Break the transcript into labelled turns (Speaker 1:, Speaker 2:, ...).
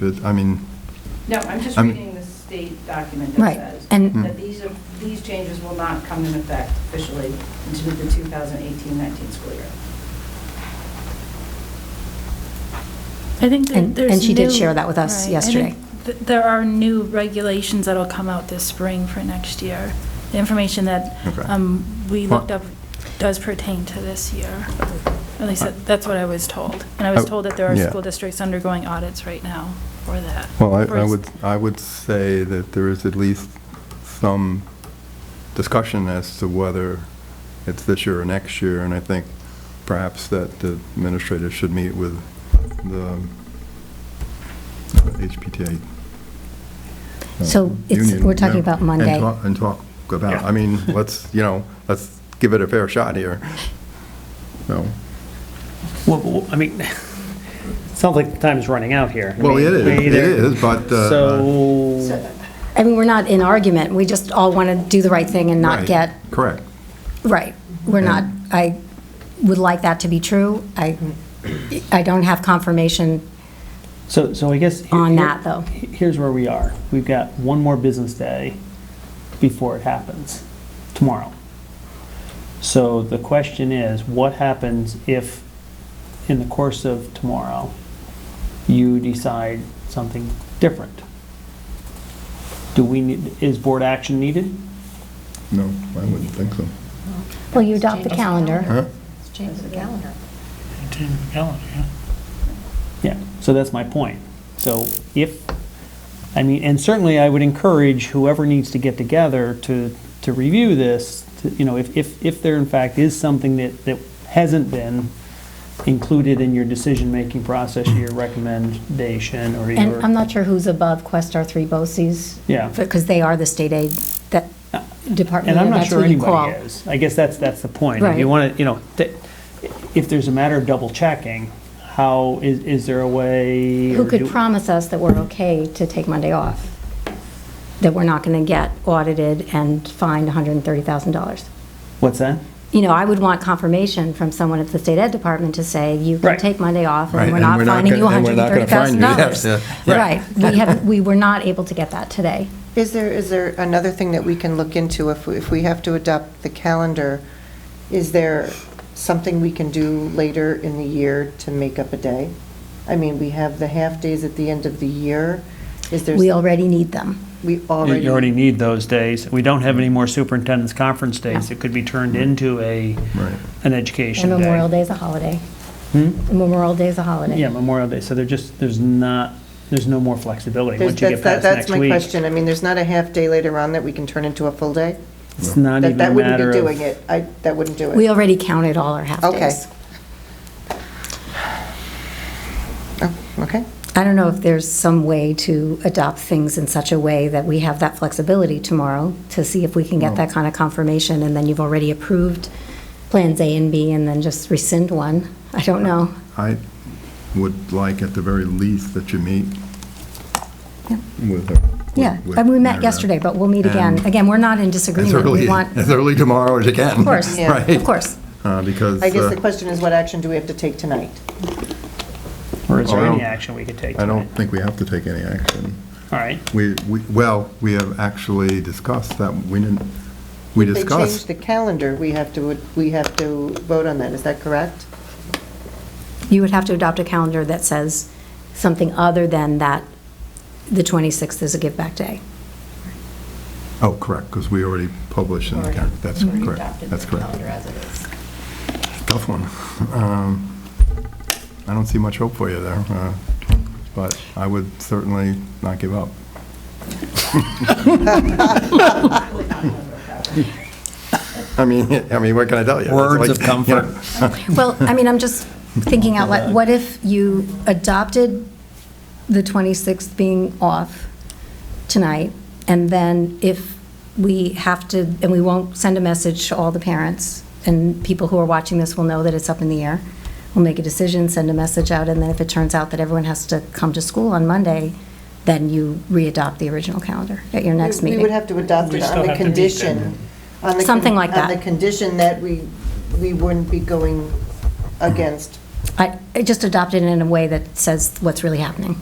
Speaker 1: But, I mean,
Speaker 2: No, I'm just
Speaker 1: I'm-
Speaker 2: reading the state document that
Speaker 3: Right,
Speaker 2: says
Speaker 3: and-
Speaker 2: that these, are- these changes will not come into effect officially until the 2018-19 school year.
Speaker 4: I think that
Speaker 3: And-
Speaker 4: there's
Speaker 3: and she did
Speaker 4: new-
Speaker 3: share that with us
Speaker 4: right, I think
Speaker 3: yesterday.
Speaker 4: th- There are new regulations that'll come out this spring for next year. The information that
Speaker 1: Okay.
Speaker 4: um, we
Speaker 1: Well-
Speaker 4: looked up does pertain to this year. At least that- that's what I was told. And I was
Speaker 1: Uh, I-
Speaker 4: told that there are
Speaker 1: yeah.
Speaker 4: school districts undergoing audits right now for that.
Speaker 1: well, I-
Speaker 4: for
Speaker 1: I
Speaker 4: s-
Speaker 1: would, I would say that there is at least some discussion as to whether it's this year or next year, and I think perhaps that the administrators should meet with the HPTA. uh,
Speaker 3: So it's-
Speaker 1: union
Speaker 3: we're talking
Speaker 1: member
Speaker 3: about
Speaker 1: and
Speaker 3: Monday.
Speaker 1: talk- And talk about, I mean, let's, you know, let's give it a fair shot here. So,
Speaker 5: Well, Well, I mean, it sounds like the time is running out here. I
Speaker 1: Well,
Speaker 5: mean,
Speaker 1: it is,
Speaker 5: we
Speaker 1: it
Speaker 5: either-
Speaker 1: is, but, uh,
Speaker 5: So,
Speaker 3: I mean, we're not in argument, we just all want to do the right thing and not
Speaker 1: right,
Speaker 3: get,
Speaker 1: Correct.
Speaker 3: right, we're not, I would like that to be true. I, I don't have confirmation
Speaker 5: so, so I guess. he-
Speaker 3: on
Speaker 5: here-
Speaker 3: that, though.
Speaker 5: he- Here's where we are. We've got one more business day before it happens, tomorrow. So the question is, what happens if, in the course of tomorrow, you decide something different? Do we need, is board action needed?
Speaker 1: No, I wouldn't think so.
Speaker 3: Well, you adopt the calendar.
Speaker 1: Huh?
Speaker 6: Change the calendar.
Speaker 5: Yeah, so that's my point. So if, I mean, and certainly I would encourage whoever needs to get together to, to review this, to, you know, if, if, if there in fact is something that, that hasn't been included in your decision-making process, your recommendation or your.
Speaker 3: And I'm not sure who's above Questar Three BOCES.
Speaker 5: Yeah. Uh,
Speaker 3: Because they are the state aid, that department,
Speaker 5: And I'm not
Speaker 3: that's
Speaker 5: sure
Speaker 3: who you call.
Speaker 5: anybody is. I guess that's, that's the point. If
Speaker 3: Right.
Speaker 5: you want to, you know, that- if there's a matter of double checking, how, is, is there a way?
Speaker 3: Who
Speaker 5: or
Speaker 3: could
Speaker 5: do-
Speaker 3: promise us that we're okay to take Monday off? That we're not going to get audited and fined $130,000?
Speaker 5: What's that?
Speaker 3: You know, I would want confirmation from someone at the state ed department to say, you can
Speaker 5: Right.
Speaker 3: take Monday off
Speaker 1: Right,
Speaker 3: and we're
Speaker 1: and
Speaker 3: not
Speaker 1: we're not
Speaker 3: finding you
Speaker 1: gonna- and we're not gonna fine you, yes,
Speaker 3: $130,000.
Speaker 1: yeah, yeah.
Speaker 3: Right, we have, we were not able to get that today.
Speaker 6: Is there, is there another thing that we can look into if, we- if we have to adopt the calendar? Is there something we can do later in the year to make up a day? I mean, we have the half-days at the end of the year. Is there?
Speaker 3: We already need them.
Speaker 6: We
Speaker 5: You-
Speaker 6: already.
Speaker 5: You already need those days. We don't have any more superintendent's conference days.
Speaker 3: No.
Speaker 5: It could be turned
Speaker 6: Mm-hmm.
Speaker 5: into a,
Speaker 1: Right.
Speaker 5: an
Speaker 3: And
Speaker 5: education day. Hmm?
Speaker 3: Memorial Day is a holiday. Memorial Day is a holiday.
Speaker 5: Yeah, Memorial Day. So they're just, there's not, there's no more flexibility.
Speaker 6: there's-
Speaker 5: Once you get
Speaker 6: that's- that-
Speaker 5: past next
Speaker 6: That's my
Speaker 5: week,
Speaker 6: question. I mean, there's not a half-day later on that we can turn into a full day?
Speaker 5: it's not
Speaker 6: That,
Speaker 5: even a
Speaker 6: that wouldn't be
Speaker 5: matter
Speaker 6: doing
Speaker 5: of.
Speaker 6: it. I, that wouldn't do it.
Speaker 3: We already counted all our
Speaker 6: Okay.
Speaker 3: half-days.
Speaker 6: Oh, Okay.
Speaker 3: I don't know if there's some way to adopt things in such a way that we have that flexibility tomorrow to see if we can get that kind of confirmation, and then you've already approved plans A and B, and then just rescind one. I don't know.
Speaker 1: I would like at the very least that you meet with her.
Speaker 3: Yeah,
Speaker 1: with-
Speaker 3: and we met
Speaker 1: with-
Speaker 3: yesterday, but we'll meet again.
Speaker 1: And-
Speaker 3: Again, we're not in
Speaker 1: As
Speaker 3: disagreement.
Speaker 1: early,
Speaker 3: We want,
Speaker 1: as
Speaker 3: of
Speaker 1: early tomorrow as you can. Of
Speaker 3: course,
Speaker 6: Yeah.
Speaker 1: Right?
Speaker 3: of course.
Speaker 1: Uh, Because.
Speaker 6: I guess
Speaker 1: uh,
Speaker 6: the question is, what action do we have to take tonight?
Speaker 5: Or is
Speaker 1: Oh,
Speaker 5: there
Speaker 1: I
Speaker 5: any
Speaker 1: don't-
Speaker 5: action we could take?
Speaker 1: I don't
Speaker 5: tonight?
Speaker 1: think we have to take any action.
Speaker 5: All right.
Speaker 1: We, we, well, we have actually discussed that, we didn't, we
Speaker 6: If They change
Speaker 1: discussed.
Speaker 6: the calendar, we have to, we have to vote on that, is that correct?
Speaker 3: You would have to adopt a calendar that says something other than that the 26th is a give-back day.
Speaker 1: Oh, correct, because we already published in the calendar, that's
Speaker 2: Already
Speaker 1: correct,
Speaker 2: adopted
Speaker 1: that's
Speaker 2: the
Speaker 1: correct.
Speaker 2: calendar as it is.
Speaker 1: Tough one. Um, I don't see much hope for you there, uh, but I would certainly not give up. I mean, I mean, what can I tell you? It's
Speaker 7: Words
Speaker 1: like,
Speaker 7: of
Speaker 1: you know,
Speaker 7: comfort.
Speaker 3: Well, I mean, I'm just thinking out loud, what if you adopted the 26th being off tonight, and then if we have to, and we won't send a message to all the parents, and people who are watching this will know that it's up in the air, we'll make a decision, send a message out, and then if it turns out that everyone has to come to school on Monday, then you re-adopt the original calendar at your next
Speaker 6: We-
Speaker 3: meeting.
Speaker 6: We would have to adopt
Speaker 5: We
Speaker 6: it
Speaker 5: still
Speaker 6: on the
Speaker 5: have to meet
Speaker 6: condition. on the con-
Speaker 3: Something like
Speaker 6: On
Speaker 3: that.
Speaker 6: the condition that we, we wouldn't be going against.
Speaker 3: I I just adopt it in a way that says what's really happening.